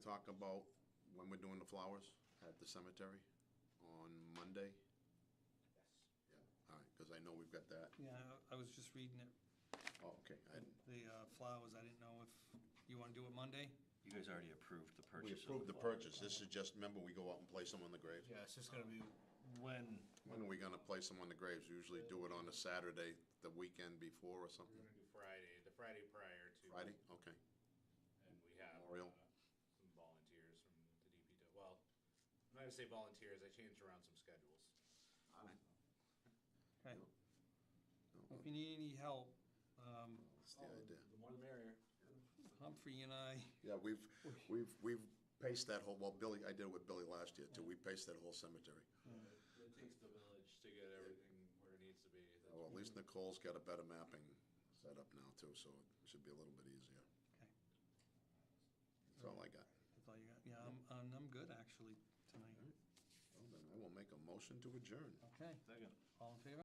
talk about when we're doing the flowers at the cemetery on Monday? Yes. Yeah. All right, because I know we've got that. Yeah, I I was just reading it, Oh, okay. I didn't- the uh, flowers, I didn't know if, you want to do it Monday? You guys already approved the purchase. We of approved the flower. purchase. This is just, remember, we go out and place them on the graves? Yeah, it's just gonna be when. When are we gonna place them on the graves? Usually do it on a Saturday, the weekend before or We're something? gonna do Friday, the Friday prior to. Friday? Okay. And we have Memorial. uh, some volunteers from the DPW, well, I'm not gonna say volunteers, I changed around some schedules. Okay. No, If you need any help, um, That's Oh, the idea. The more the merrier. Humphrey and I, Yeah, we've, we've, we've paced that whole, well, Billy, I did it with Billy last year too. We paced that whole cemetery. Uh, It takes the village to get everything where it needs to be. That's Oh, Well, at least Nicole's got a better mapping set up now too, so it should be a little bit easier. okay, That's all I got. that's all you got, yeah, I'm, I'm I'm good actually tonight. Well, then I will make a motion to adjourn. Okay, Second. all in favor?